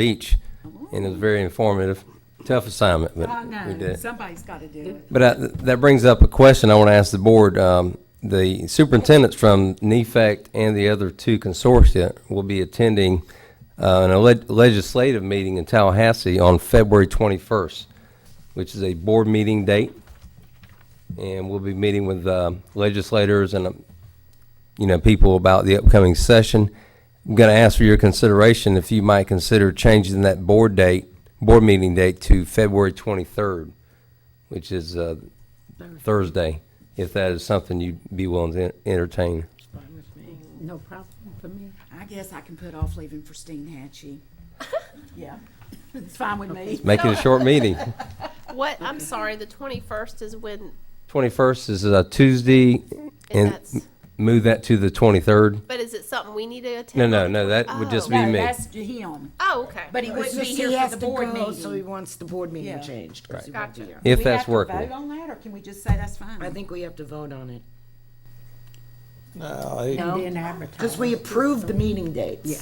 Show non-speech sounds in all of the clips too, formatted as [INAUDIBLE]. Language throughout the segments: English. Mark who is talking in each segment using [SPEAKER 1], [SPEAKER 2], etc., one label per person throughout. [SPEAKER 1] beach, and it was very informative. Tough assignment, but
[SPEAKER 2] I
[SPEAKER 1] we
[SPEAKER 2] know,
[SPEAKER 1] did.
[SPEAKER 2] Oh, somebody's got to do it.
[SPEAKER 1] But I, that brings up a question I want to ask the board. Um, the superintendents from E NEFAC and the other two consortia will be attending uh, an leg- legislative meeting in Tallahassee on February 21st, which is a board meeting date. And we'll be meeting with um, legislators and um, you know, people about the upcoming session. I'm going to ask for your consideration if you might consider changing that board date, board meeting date to February 23rd, which is uh, Thursday, if that is something you'd be willing to entertain.
[SPEAKER 3] No problem for me.
[SPEAKER 2] I guess I can put off leaving for Steen [LAUGHS] Hatchie. Yeah, it's fine with me.
[SPEAKER 1] Make it a short
[SPEAKER 2] [LAUGHS]
[SPEAKER 1] meeting.
[SPEAKER 4] What, I'm sorry, the twenty-first is when,
[SPEAKER 1] 21st is a Tuesday,
[SPEAKER 4] and
[SPEAKER 1] and
[SPEAKER 4] that's,
[SPEAKER 1] move that to the 23rd.
[SPEAKER 4] but is it something we need to attend?
[SPEAKER 1] No, no,
[SPEAKER 4] on?
[SPEAKER 1] no, that would just be
[SPEAKER 2] No,
[SPEAKER 1] me.
[SPEAKER 2] that's him,
[SPEAKER 4] Oh, okay.
[SPEAKER 2] but he wouldn't be
[SPEAKER 3] He
[SPEAKER 2] here
[SPEAKER 3] has
[SPEAKER 2] for the
[SPEAKER 3] to
[SPEAKER 2] board
[SPEAKER 3] go, So he
[SPEAKER 2] meeting.
[SPEAKER 3] wants the board
[SPEAKER 2] Yeah.
[SPEAKER 3] meeting changed. 'cause he uh, won't be
[SPEAKER 4] Gotcha.
[SPEAKER 3] here.
[SPEAKER 1] If
[SPEAKER 2] Do we
[SPEAKER 1] that's
[SPEAKER 2] have to Vote
[SPEAKER 1] workable.
[SPEAKER 2] on that, or can we just say that's fine?
[SPEAKER 3] I think we have to vote on it.
[SPEAKER 5] No, it-
[SPEAKER 3] No, because we approved the meeting dates. Yeah.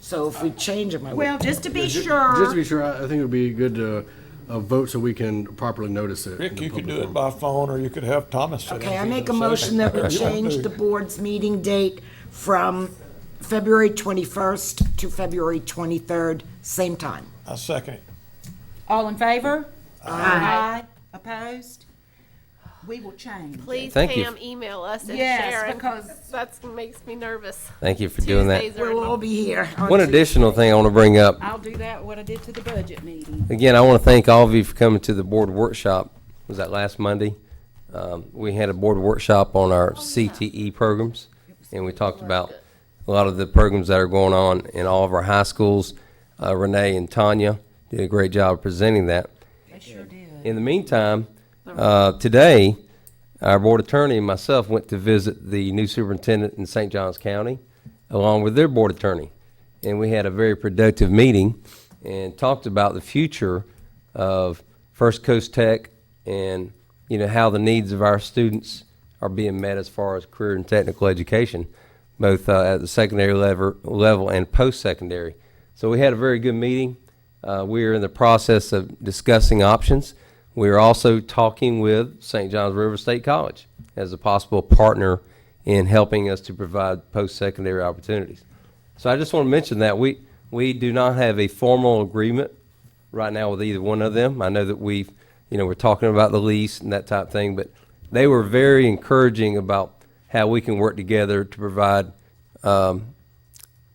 [SPEAKER 3] So if we change them, I
[SPEAKER 2] Well,
[SPEAKER 3] would.
[SPEAKER 2] just to be
[SPEAKER 6] Ju- Just to
[SPEAKER 2] sure,
[SPEAKER 6] be sure, I I think it would be good to uh, vote so we can properly notice it. in
[SPEAKER 5] Rick,
[SPEAKER 6] the
[SPEAKER 5] you could
[SPEAKER 6] public
[SPEAKER 5] do it
[SPEAKER 6] forum.
[SPEAKER 5] by phone, or you could have Thomas sit in.
[SPEAKER 3] Okay, I
[SPEAKER 5] for
[SPEAKER 3] make a
[SPEAKER 5] the
[SPEAKER 3] motion
[SPEAKER 5] session.
[SPEAKER 3] that
[SPEAKER 5] [LAUGHS] Yeah,
[SPEAKER 3] we change the board's meeting date from February 21st to February 23rd, same time.
[SPEAKER 5] I second it.
[SPEAKER 2] all in favor? Aye. Opposed? We will change.
[SPEAKER 4] Please,
[SPEAKER 1] Thank you.
[SPEAKER 4] Pam, email us and
[SPEAKER 2] Yes,
[SPEAKER 4] share it.
[SPEAKER 2] because-
[SPEAKER 4] That makes me nervous.
[SPEAKER 1] Thank you for doing that.
[SPEAKER 4] Tuesdays are
[SPEAKER 3] We'll all be here. on
[SPEAKER 1] One
[SPEAKER 3] Tuesday.
[SPEAKER 1] additional thing I want to bring up.
[SPEAKER 2] I'll do that, what I did to the budget meeting.
[SPEAKER 1] Again, I want to thank all of you for coming to the board workshop. Was that last Monday? Um, We had a board workshop on our CTE programs, and we talked about a lot of the programs that are going on in all of our high schools. Uh, Renee and Tanya did a great job presenting that.
[SPEAKER 2] They sure did.
[SPEAKER 1] In the meantime, uh, today, our board attorney and myself went to visit the new superintendent in St. Johns County, along with their board attorney. And we had a very productive meeting and talked about the future of First Coast Tech and, you know, how the needs of our students are being met as far as career and technical education, both uh, at the secondary level, level and post-secondary. So we had a very good meeting. Uh, we are in the process of discussing options. We are also talking with St. John's River State College as a possible partner in helping us to provide post-secondary opportunities. So I just want to mention that we, we do not have a formal agreement right now with either one of them. I know that we've, you know, we're talking about the lease and that type thing, but they were very encouraging about how we can work together to provide um,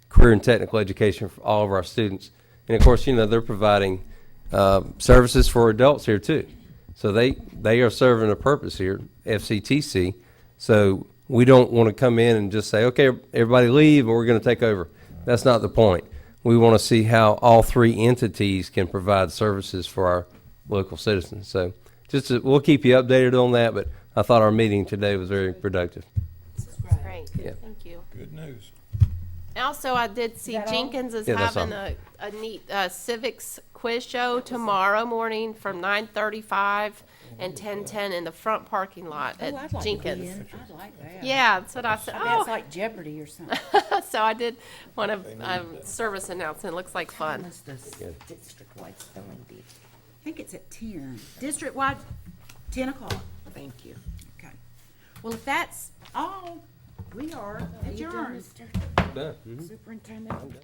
[SPEAKER 1] career and technical education for all of our students. And of course, you know, they're providing uh, services for adults here too. So they, they are serving a purpose here, FCTC. So we don't want to come in and just say, okay, everybody leave and we're going to take over. That's not the point. We want to see how all three entities can provide services for our local citizens. So just, to- we'll keep you updated on that, but I thought our meeting today was very productive.
[SPEAKER 4] Great,
[SPEAKER 1] Yeah.
[SPEAKER 4] thank you.
[SPEAKER 5] Good news.
[SPEAKER 4] Also, I did see Jenkins is
[SPEAKER 1] Yeah, that's
[SPEAKER 4] having
[SPEAKER 1] all.
[SPEAKER 4] a, a neat uh, civics quiz show tomorrow morning from nine thirty-five and ten-ten in the front parking lot
[SPEAKER 2] Oh, I'd
[SPEAKER 4] at
[SPEAKER 2] like to be
[SPEAKER 4] Jenkins.
[SPEAKER 2] in. I'd like that.
[SPEAKER 4] Yeah, that's what I said.
[SPEAKER 2] That's
[SPEAKER 4] Oh,
[SPEAKER 2] like Jeopardy or something.
[SPEAKER 4] [LAUGHS] so I did want to, um, service announcement. Looks like fun.
[SPEAKER 3] What's the district-wide spelling bee?
[SPEAKER 2] I think it's at ten. District-wide, ten o'clock.
[SPEAKER 3] Thank you.
[SPEAKER 2] Okay. Well, if that's all, we are adjourned.
[SPEAKER 1] Done.
[SPEAKER 3] Superintendent?